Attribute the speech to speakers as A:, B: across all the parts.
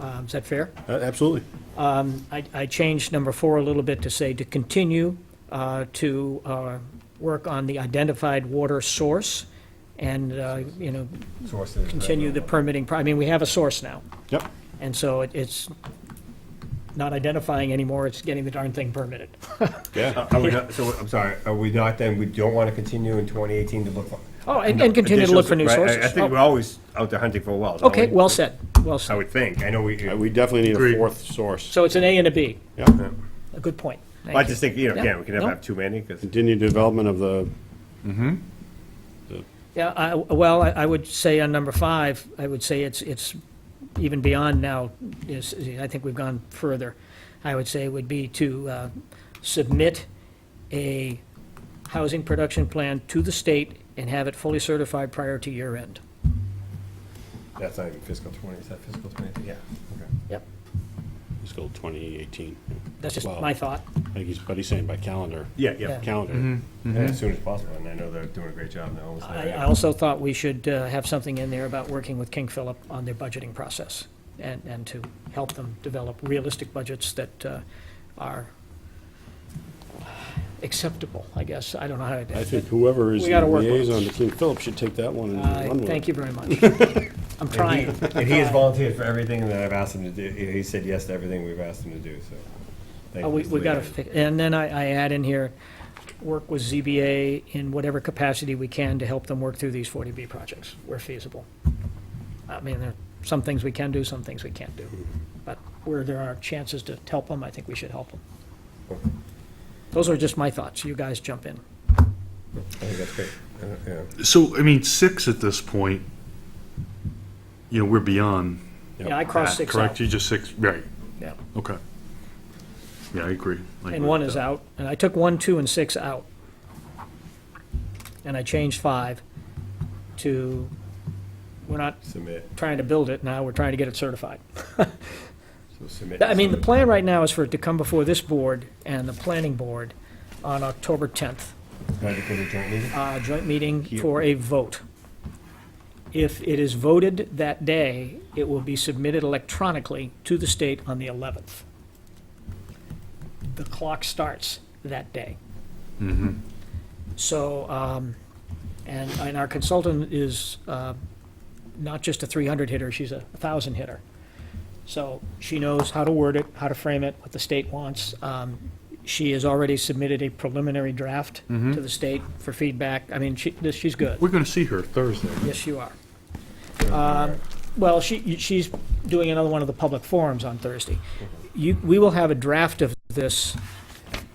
A: Um, Is that fair?
B: Uh, Absolutely.
A: I I changed number four a little bit to say to continue uh, to uh, work on the identified water source and, uh, you know,
C: Sources.
A: continue the permitting, pro- I mean, we have a source now.
B: Yep.
A: And so it- it's not identifying anymore, it's getting the darn thing permitted.
B: Yeah.
C: Are we not, so, I'm sorry, are we not then, we don't want to continue in 2018 to look for?
A: Oh, and and continue to look for new
C: Right, I-
A: sources.
C: I think we're
A: Oh,
C: always out there hunting for wells. aren't
A: Okay,
C: we?
A: well said, well
C: I
A: said.
C: would think, I know we,
B: Uh, We definitely need
C: Agreed.
B: a fourth source.
A: So it's an A and a B,
B: Yep.
A: a good point. Thank
C: I
A: you.
C: just think, you know,
A: Yeah,
C: again, we can never
A: no.
C: have too many, because.
B: Continued development of the,
A: Yeah, I, well, I, I would say on number five, I would say it's, it's even beyond now, is, I think we've gone further. I would say would be to, uh, submit a housing production plan to the state and have it fully certified prior to year end.
C: That's not even fiscal 20, is that fiscal 20? Yeah. okay.
A: Yep.
B: fiscal 2018.
A: That's just
B: Wow.
A: my thought.
B: I think he's, but he's saying by calendar.
C: Yeah, Mm-hmm.
A: Yeah.
C: yeah,
B: Calendar.
C: And as soon as possible, and I know they're doing a great job now. almost
A: I, I
C: there.
A: also thought we should, uh, have something in there about working with King Philip on their budgeting process and, and to help them develop realistic budgets that, uh, are acceptable, I guess. I don't know how
B: I
A: to.
B: think whoever is
A: We gotta
B: the
A: work on it.
B: liaison to King Philip should take that one and
A: Uh,
B: run with it.
A: Thank you very much. I'm trying.
C: And he has volunteered for everything that I've asked him to do. He he said yes to everything we've asked him to do, so. thank
A: Uh,
C: you,
A: We,
C: Mr.
A: we gotta,
C: Leahy.
A: fi- and then I, I add in here, work with ZBA in whatever capacity we can to help them work through these 40B projects where feasible. I mean, there are some things we can do, some things we can't do. But where there are chances to help them, I think we should help them. Those are just my thoughts. You guys jump in.
C: I think that's great. Uh, yeah.
D: So, I mean, six at this point, you know, we're beyond
A: Yeah, I
D: that,
A: crossed six out.
D: correct? You just six, right,
A: Yeah.
D: okay. Yeah, I agree. I
A: And
D: agree
A: one
D: with
A: is
D: that.
A: out, and I took one, two, and six out. And I changed five to, we're not
C: Submit,
A: trying to build it now, we're trying to get it certified.
C: so submit.
A: I mean, the
C: submit.
A: plan right now is for it to come before this board and the planning board on October 10th,
C: Can I do a joint meeting?
A: uh, joint meeting for a vote. If it is voted that day, it will be submitted electronically to the state on the 11th. The clock starts that day. So, um, and, and our consultant is uh, not just a 300 hitter, she's a 1,000 hitter. So she knows how to word it, how to frame it, what the state wants. Um, She has already submitted a preliminary draft to the state for feedback. I mean, she, this- she's good.
D: We're gonna see her Thursday.
A: Yes, you are. Um, Well, she, she's doing another one of the public forums on Thursday. You, we will have a draft of this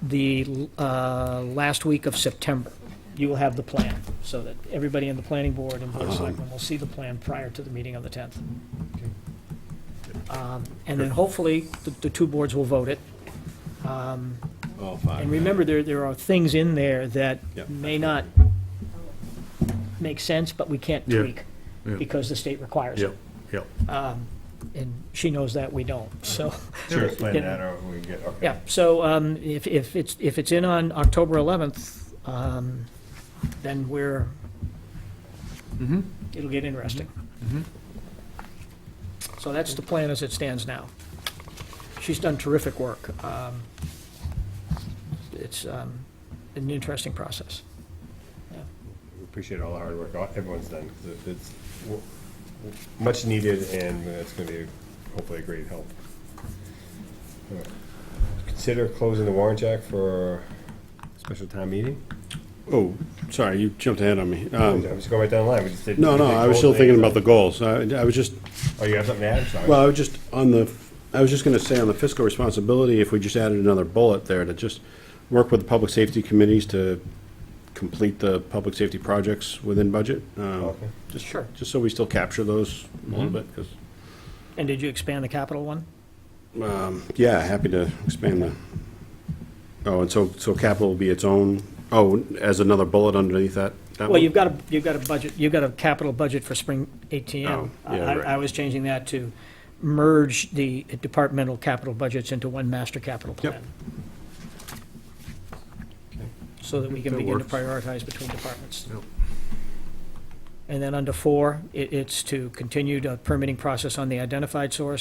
A: the uh, last week of September. You will have the plan, so that everybody in the planning board and board
D: Uh-huh.
A: of selectmen will see the plan prior to the meeting on the 10th. Um, And then hopefully, the, the two boards will vote it. Um,
B: Oh, fine.
A: And remember, there, there are things in there that
B: Yep.
A: may not make sense, but we can't
D: Yeah.
A: tweak
D: Yeah.
A: because the state requires
D: Yep,
A: it.
D: yep.
A: And she knows that, we don't, so,
C: Sure, explain
A: Yeah.
C: that, or we can get, okay.
A: yeah. So um, if, if it's, if it's in on October 11th, um, then we're, it'll get interesting. So that's the plan as it stands now. She's done terrific work. Um, It's um, an interesting process.
C: Appreciate all the hard work all- everyone's done, 'cause it- it's w- w- much needed, and it's gonna be hopefully a great help. Alright. Consider closing the warrant jack for special town meeting?
B: Oh, sorry, you jumped ahead on me.
C: I
B: Um,
C: was going right down the line, we just did.
B: No, no,
C: we did
B: I was still
C: gold
B: thinking
C: thing.
B: about the goals. I I was just
C: Oh, you have something to add, I'm sorry.
B: Well, I was just on the, I was just going to say on the fiscal responsibility, if we just added another bullet there to just work with the public safety committees to complete the public safety projects within budget. um,
C: Okay.
B: Just,
A: Sure.
B: just so we still capture those a little bit, because,
A: And did you expand the capital one?
B: um, yeah, happy to expand the, oh, and so, so capital will be its own, oh, as another bullet underneath that? that
A: Well,
B: one?
A: you've got a, you've got a budget, you've got a capital budget for spring ATM.
B: Oh,
A: I,
B: yeah, right.
A: I was changing that to merge the departmental capital budgets into one master capital
B: Yep.
A: plan. So that we can
D: That
A: begin to
D: works.
A: prioritize between departments.
D: Yep.
A: And then under four, it, it's to continue the permitting process on the identified source